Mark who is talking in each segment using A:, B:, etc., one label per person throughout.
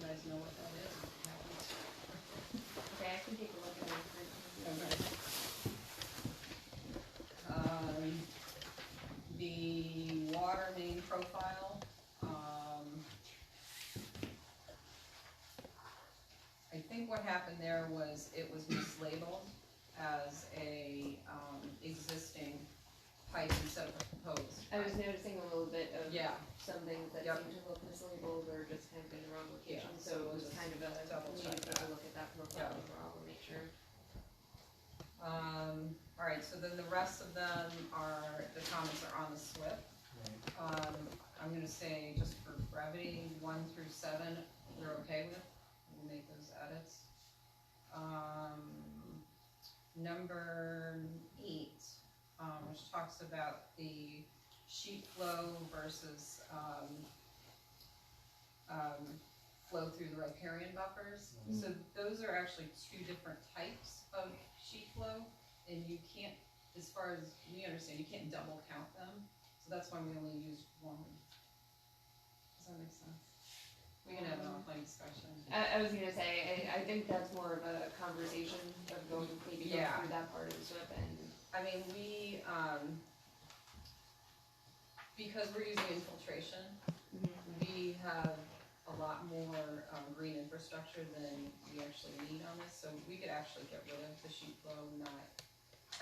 A: guys know what that is. that one's-
B: Okay, I can take a look at it.
A: Um, the water main profile, um. I think what happened there was it was mislabeled as a, um, existing pipe instead of a proposed.
B: I was noticing a little bit of
A: Yeah,
B: some things that
A: Yep.
B: seemed to look mislabeled or just kind of in the wrong location,
A: Yeah,
B: so
A: so
B: it
A: we'll
B: was
A: just
B: kind of a,
A: double
B: we
A: check
B: need to take
A: that.
B: a look at that profile
A: Yeah.
B: overall and make sure.
A: um, alright, so then the rest of them are, the comments are on the SWIP. Um, I'm gonna say, just for brevity, one through seven, we're okay with, we'll make those edits. Um, number eight, um, which talks about the sheet flow versus, um, um, flow through the riparian buffers. So those are actually two different types of sheet flow, and you can't, as far as we understand, you can't double count them. So that's why we only use one. Does that make sense? We can have an offline discussion.
B: Um, I, I was gonna say, I, I think that's more of a conversation of going, maybe going
A: Yeah.
B: through that part of the SWIP and,
A: I mean, we, um, because we're using infiltration, we have a lot more, um, green infrastructure than we actually need on this, so we could actually get rid of the sheet flow, not,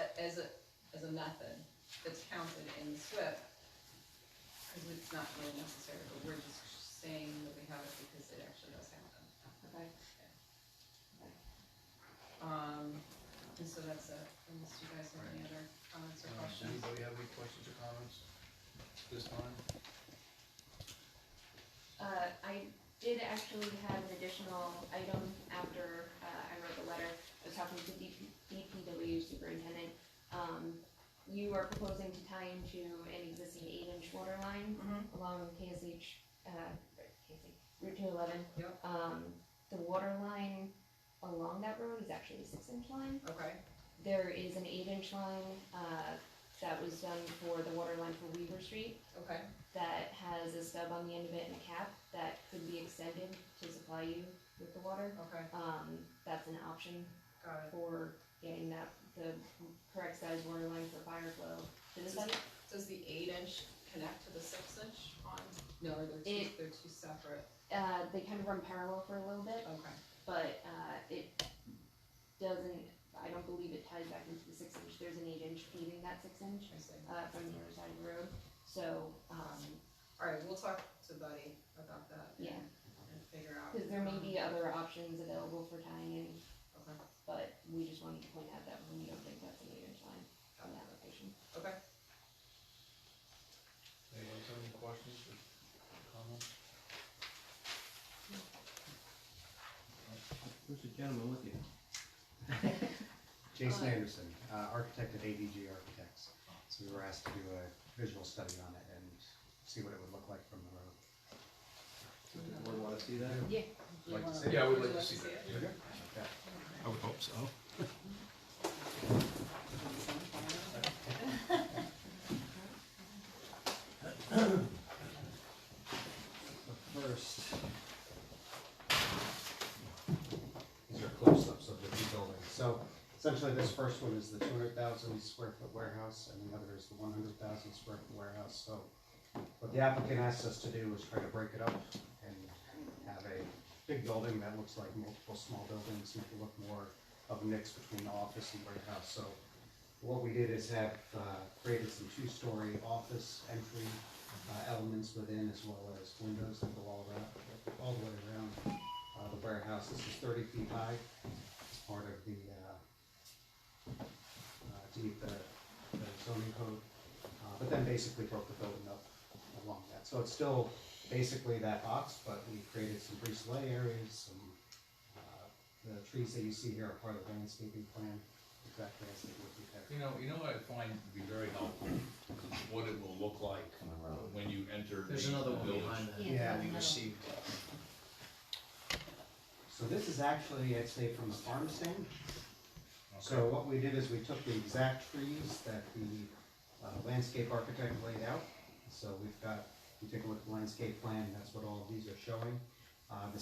A: a- as a, as a method that's counted in the SWIP. Cause it's not really necessary, but we're just saying that we have it because it actually does happen.
B: okay.
A: Um, and so that's it, unless you guys have any other comments
C: Uh,
A: or questions.
C: Anybody have any questions or comments this time?
B: Uh, I did actually have an additional item after, uh, I wrote the letter, I was talking to DP, DPW superintendent. Um, you are proposing to tie into an existing eight-inch water line
A: Mhm.
B: along KSH, uh, KSH, Route two eleven.
A: Yep.
B: Um, the water line along that road is actually a six-inch line.
A: Okay,
B: There is an eight-inch line, uh, that was done for the water line for Weaver Street
A: okay,
B: that has a stub on the end of it and a cap that could be extended to supply you with the water.
A: okay,
B: Um, that's an option
A: got it.
B: for getting that, the correct size water line for fire flow to the site.
A: Does the eight inch connect to the six inch on, no, or they're two,
B: It-
A: they're two separate,
B: Uh, they kind of run parallel for a little bit,
A: okay,
B: but, uh, it doesn't, I don't believe it ties back into the six inch. There's an eight inch feeding that six inch,
A: I see.
B: uh, from the other side of the road. So, um,
A: Alright, we'll talk to Buddy about that.
B: yeah,
A: And figure out.
B: cause there may be other options available for tying in
A: Okay,
B: but we just wanted to point out that we don't think that's an eight-inch line
A: got
B: on the
A: it.
B: application.
A: okay,
C: Anybody else have any questions or comments?
D: Where's the gentleman with you?
E: Jason Anderson, uh, architect at ADG Architects. So we were asked to do a visual study on it and see what it would look like from the road.
D: Does the board wanna see that?
A: Do you
E: Like to
A: wanna-
E: see it?
C: Yeah, I would
A: you
C: like to see
A: it?
C: that, yeah.
E: Okay.
F: I would hope so.
E: The first. These are close-ups of the two buildings. So essentially, this first one is the two hundred thousand square foot warehouse, and the other is the one hundred thousand square foot warehouse. So what the applicant asked us to do was try to break it up and have a big building that looks like multiple small buildings, make it look more of a mix between office and warehouse. So what we did is have uh, created some two-story office entry uh, elements within as well as windows that go all around, all the way around uh, the warehouse. This is thirty feet high. It's part of the, uh, uh, deed, the the zoning code. Uh, But then basically broke the building up along that. So it's still basically that box, but we created some breezeway areas, some, uh, the trees that you see here are part of the landscaping plan. Exact landscaping would be there.
C: You know, you know what I find to be very helpful, what it will look like when you enter the the
G: There's
C: village.
G: another one behind that.
E: Yeah.
G: We received,
E: So this is actually, I'd say, from a farm stand.
C: Okay.
E: So what we did is we took the exact trees that the uh, landscape architect laid out. So we've got, if you take a look at the landscape plan, that's what all of these are showing. Uh, the